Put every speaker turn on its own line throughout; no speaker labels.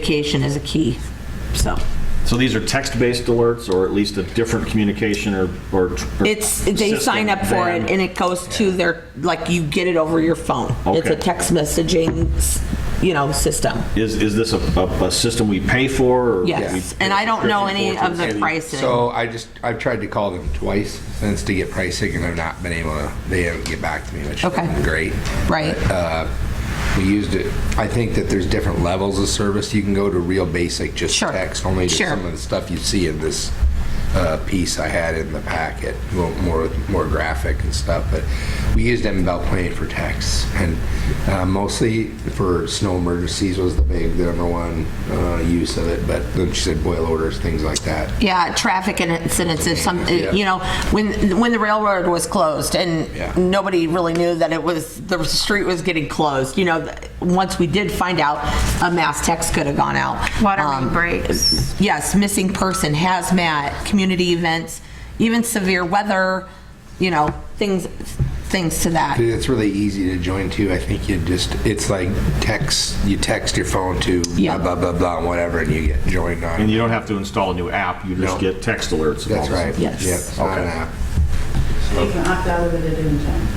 communication is a key, so.
So these are text-based alerts, or at least a different communication or... or-
It's, they sign up for it and it goes to their, like, you get it over your phone. It's a
Okay.
text messaging, you know, system.
Is, is this a, a a system we pay for? or
Yes,
we-
and I don't know any of the
Any-
pricing.
So I just, I've tried to call them twice since to get pricing and I've not been able to, they haven't get back to me, which
Okay.
is great.
Right.
But, uh, We used it, I think that there's different levels of service. You can go to real basic, just
Sure.
text, only to
Sure.
some of the stuff you see in this uh, piece I had in the packet, more, more more graphic and stuff, but we used them about playing for texts. And uh, mostly for snow emergencies was the big, the number one uh, use of it, but then she said boil orders, things like that.
Yeah, traffic incidents, if some,
Yeah.
you know, when, when the railroad was closed
Yeah.
and nobody really knew that it was, the street was getting closed, you know, th- once we did find out, a mass text could have gone out.
Water main
Um,
breaks.
yes, missing person, hazmat, community events, even severe weather, you know, things, things to that.
Dude, It's really easy to join too. I think you just, it's like text, you text your phone to
Yeah.
blah, blah, blah, blah, and whatever, and you get joined on.
And you don't have to install a new app, you just
No.
get text alerts. and all
That's
this.
right.
Yes.
Yep, it's not an
Okay.
app.
They can opt out of it at any time.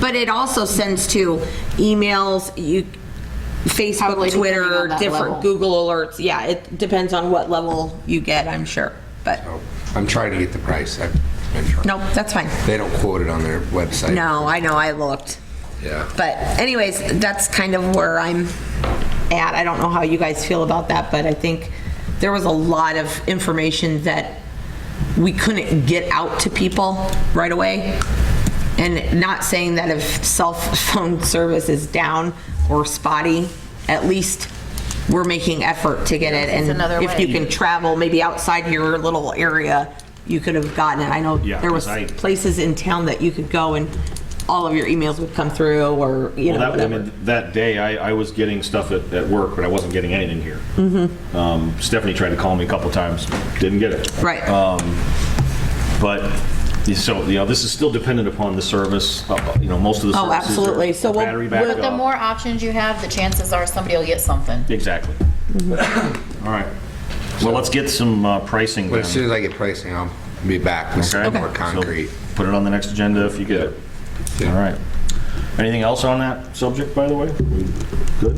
But it also sends to emails, you,
Probably
Facebook,
depending
Twitter,
on that
different
level.
Google alerts. Yeah, it depends on what level you get, I'm sure. But,
Oh, I'm trying to get the price. I've been trying.
nope, that's fine.
They don't quote it on their website.
No, I know, I looked.
Yeah.
But anyways, that's kind of where I'm at. I don't know how you guys feel about that, but I think there was a lot of information that we couldn't get out to people right away. And not saying that if cell phone service is down or spotty, at least we're making effort to get it. And
another
if you
way.
can travel, maybe outside your little area, you could have gotten it. I know
Yeah,
there was
'cause I-
places in town that you could go and all of your emails would come through or, you know,
Well, that, I
whatever.
mean, that day, I, I was getting stuff at, at work, but I wasn't getting anything here.
Mm-hmm.
Um, Stephanie tried to call me a couple times, didn't get it.
Right.
But, so, you know, this is still dependent upon the service, uh, you know, most of the
Oh,
services. are
absolutely. So we'll-
Battery
we'll-
backup.
But
The more options you have, the chances are somebody will get something.
Exactly. All right. Well, let's get some uh, pricing
But as soon
then.
as I get pricing, I'll be back with some
Okay?
more
So
concrete.
Put it on the next agenda if you get it. All right. Anything else on that subject, by the way? Good?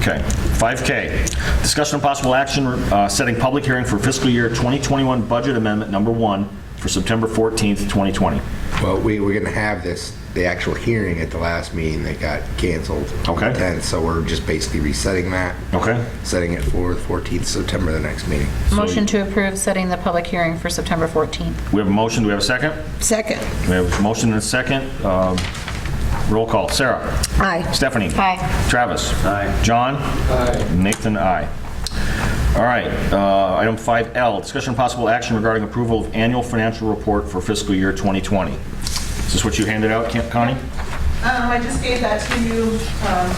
Okay. 5K, discussion of possible action, uh, setting public hearing for fiscal year 2021 budget amendment number one for September 14th, 2020.
Well, we were going to have this, the actual hearing at the last meeting that got canceled. on the
Okay.
10th, so we're just basically resetting that.
Okay?
Setting it for the 14th September, the next meeting.
Motion to approve setting the public hearing for September 14th.
We have a motion, do we have a second?
Second.
We have a motion and a second. Um, Roll call. Sarah?
Aye.
Stephanie?
Aye.
Travis? Aye. John? Aye. Nathan, aye. All right, uh, item 5L, discussion of possible action regarding approval of annual financial report for fiscal year 2020. Is this what you handed out, Con- Connie?
Um, I just gave that to you, um,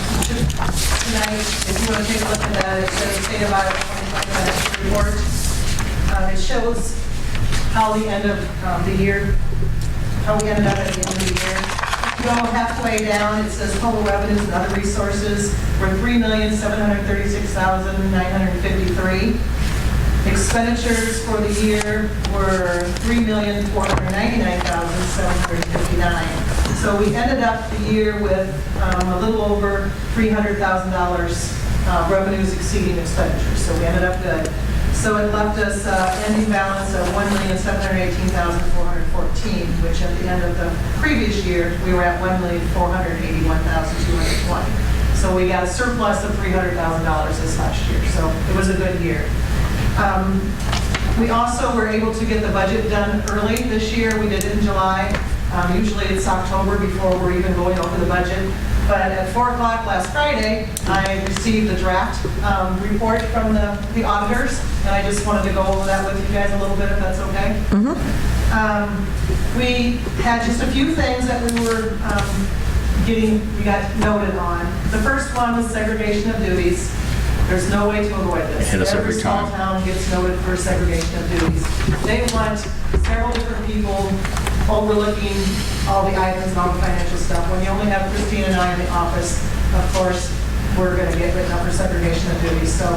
tonight, if you want to take a look at that, it says state of Iowa 2020 report. Um, it shows how the end of, um, the year, how Oh, we ended up at the end of the year. If you go halfway down, it says total revenues and other resources were three million, seven hundred thirty-six thousand, nine hundred fifty-three. Expenditures for the year were $3,499,759. So we ended up the year with um, a little over $300,000 uh, revenues exceeding expenditures, so we ended up good. So it left us uh, ending balance of $1,718,414, which at the end of the previous year, we were at $1,481,220. So we got a surplus of $300,000 this last year, so it was a good year. Um, we also were able to get the budget done early this year. We did it in July. Um, Usually it's October before we're even going over the budget. But at 4 o'clock last Friday, I received the draft um, report from the the auditors, and I just wanted to go over that with you guys a little bit, if that's okay. Um, We had just a few things that we were um, getting, we got noted on. The first one was segregation of duties. There's no way to avoid this.
Hit us every
small
time.
town gets noted for segregation of duties. They want several different people overlooking all the items and all the financial stuff. When you only have Christine and I in the office, of course, we're going to get written up for segregation of duties. So